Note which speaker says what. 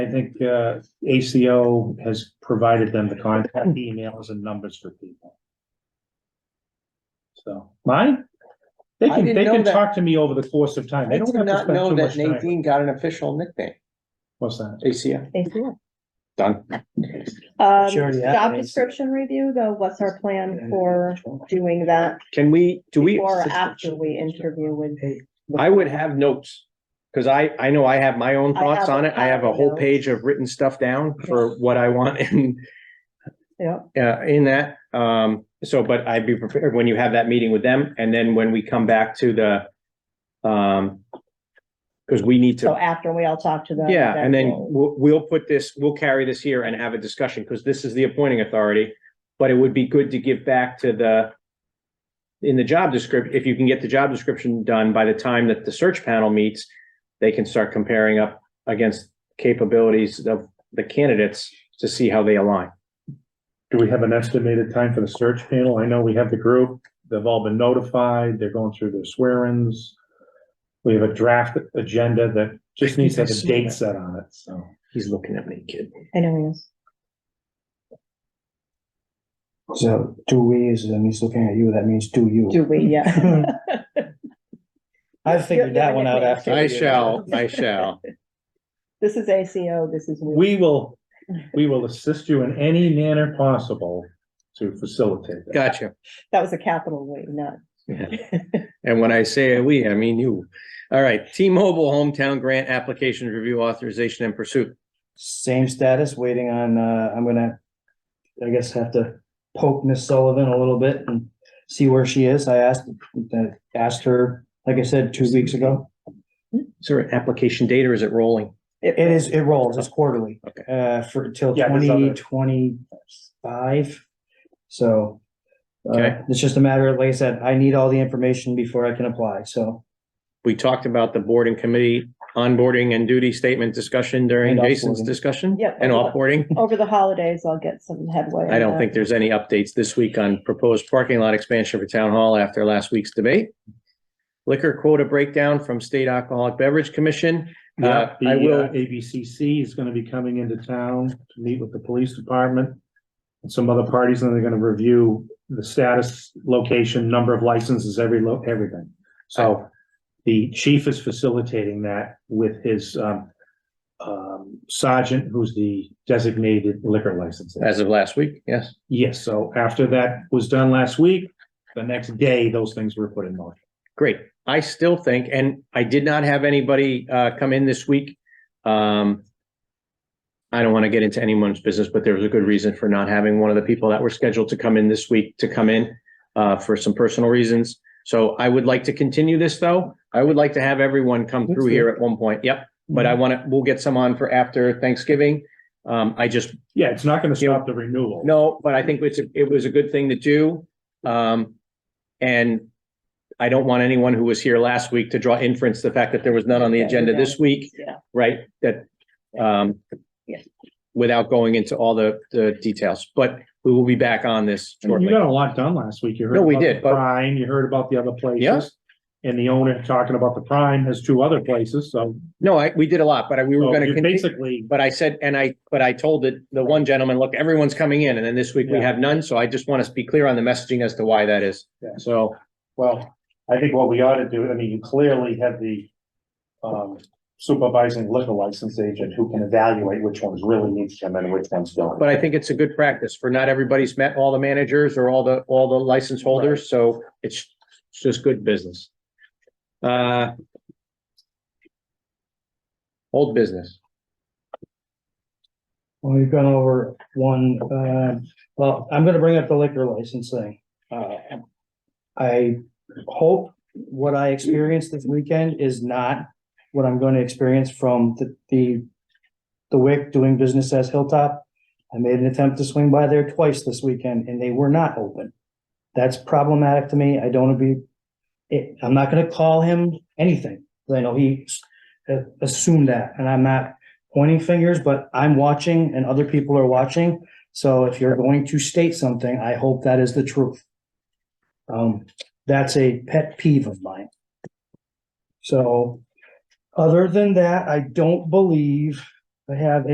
Speaker 1: I think uh ACO has provided them the contact emails and numbers for people. So mine, they
Speaker 2: I
Speaker 1: can,
Speaker 2: didn't
Speaker 1: they
Speaker 2: know
Speaker 1: can
Speaker 2: that.
Speaker 1: talk to me over the course of time.
Speaker 2: I
Speaker 1: They
Speaker 2: did
Speaker 1: don't have to
Speaker 2: not
Speaker 1: spend
Speaker 2: know
Speaker 1: too
Speaker 2: that
Speaker 1: much time.
Speaker 2: Nadine got an official nickname,
Speaker 1: What's that?
Speaker 2: ACM,
Speaker 3: ACO.
Speaker 2: done.
Speaker 3: Um,
Speaker 4: She already had
Speaker 3: job
Speaker 4: an ACO.
Speaker 3: description review, though, what's our plan for doing that
Speaker 4: Can we, do we?
Speaker 3: before or after we interview with?
Speaker 4: I would have notes. Cause I, I know I have my own
Speaker 3: I have
Speaker 4: thoughts on it. I have a whole
Speaker 3: notes.
Speaker 4: page of written stuff down for what I want in,
Speaker 3: Yeah,
Speaker 4: uh, in that. Um, so, but I'd be prepared when you have that meeting with them and then when we come back to the, um, cause we need
Speaker 3: so
Speaker 4: to,
Speaker 3: after we all talk to them.
Speaker 4: yeah, and then
Speaker 3: we'll-
Speaker 4: we'll, we'll put this, we'll carry this here and have a discussion, cause this is the appointing authority. But it would be good to give back to the, in the job description, if you can get the job description done by the time that the search panel meets, they can start comparing up against capabilities of the candidates to see how they align.
Speaker 1: Do we have an estimated time for the search panel? I know we have the group. They've all been notified. They're going through their swear-ins. We have a draft agenda that just needs to have a date set on it, so.
Speaker 4: He's looking at me, kid.
Speaker 3: I know, yes.
Speaker 5: So two ways, and he's looking at you, that means do
Speaker 3: Do
Speaker 5: you.
Speaker 3: we, yeah.
Speaker 5: I figured that one out after. uh,
Speaker 3: I
Speaker 4: shall, I shall.
Speaker 3: This is ACO, this is. we.
Speaker 1: We will, we will assist you in any manner possible to facilitate that.
Speaker 4: Gotcha.
Speaker 3: That was a capital we, not.
Speaker 4: And when I say we, I mean you. All right, T-Mobile Hometown Grant Application Review Authorization and Pursuit.
Speaker 5: Same status, waiting on, uh, I'm gonna, I guess have to poke Miss Sullivan a little bit and see where she is. I asked, I asked her, like I said, two weeks ago.
Speaker 4: Is there an application date or is it rolling?
Speaker 5: It is, it rolls, it's quarterly,
Speaker 4: Okay.
Speaker 5: uh, for, till
Speaker 1: Yeah, there's other-
Speaker 5: twenty twenty-five. So. uh,
Speaker 4: Okay.
Speaker 5: It's just a matter of, like I said, I need all the information before I can apply, so.
Speaker 4: We talked about the board and committee onboarding and duty statement discussion during
Speaker 5: And
Speaker 4: Jason's
Speaker 5: offboarding.
Speaker 4: discussion.
Speaker 3: Yep.
Speaker 4: And offboarding.
Speaker 3: Over the holidays, I'll get some headway.
Speaker 4: I
Speaker 3: on
Speaker 5: uh,
Speaker 4: don't
Speaker 3: that.
Speaker 4: think there's any updates this week on proposed parking lot expansion for town hall after last week's debate. Liquor quota breakdown from State Alcoholic Beverage Commission.
Speaker 1: Yeah,
Speaker 4: Uh,
Speaker 1: the
Speaker 4: I will-
Speaker 1: uh, ABCC is gonna be coming into town to meet with the police department and some other parties, and they're gonna review the status, location, number of licenses, every lo, everything. So the chief is facilitating that with his, um, um, sergeant, who's the designated liquor license.
Speaker 4: As of last week, yes.
Speaker 1: Yes, so after that was done last week, the next day, those things were put in motion.
Speaker 4: Great. I still think, and I did not have anybody uh come in this week. Um. I don't want to get into anyone's business, but there was a good reason for not having one of the people that were scheduled to come in this week to come in uh for some personal reasons. So I would like to continue this, though. I would like to have everyone come through here at one point. Yep. But I want to, we'll get some on for after Thanksgiving. Um, I just
Speaker 1: Yeah, it's not gonna stop the renewal.
Speaker 4: no, but I think it's, it was a good thing to do. Um, and I don't want anyone who was here last week to draw inference, the fact that there was none on the agenda this week,
Speaker 3: Yeah,
Speaker 4: right? That, um,
Speaker 3: Yes.
Speaker 4: without going into all the, the details, but we will be back on this
Speaker 1: You
Speaker 4: shortly.
Speaker 1: got a lot done last week. You heard
Speaker 4: No, we
Speaker 1: about the
Speaker 4: did, but-
Speaker 1: Prime, you heard about the other
Speaker 4: Yeah.
Speaker 1: places. And the owner talking about the prime has two other places, so.
Speaker 4: No, I, we did a lot, but I- we were
Speaker 1: so
Speaker 4: gonna
Speaker 1: you
Speaker 4: continue.
Speaker 1: Basically,
Speaker 4: But I said, and I, but I told the, the one gentleman, look, everyone's coming in, and then this week we
Speaker 1: Yeah.
Speaker 4: have none, so I just want to be clear on the messaging as to why that is.
Speaker 1: Yeah.
Speaker 4: So,
Speaker 1: well, I think what we ought to do, I mean, you clearly have the. Um, supervising liquor license agent who can evaluate which ones really need to come in and which ones don't.
Speaker 4: But I think it's a good practice for not everybody's met all the managers or all the, all the license holders, so it's, it's just good business. Uh. Old business.
Speaker 5: Well, we've gone over one, uh, well, I'm gonna bring up the liquor license thing. Uh, I hope what I experienced this weekend is not what I'm gonna experience from the, the the WIC doing business as Hilltop. I made an attempt to swing by there twice this weekend and they were not open. That's problematic to me. I don't be, it, I'm not gonna call him anything. 'cause I know he s- uh, assumed that and I'm not pointing fingers, but I'm watching and other people are watching. So if you're going to state something, I hope that is the truth. Um, that's a pet peeve of mine. So, other than that, I don't believe I have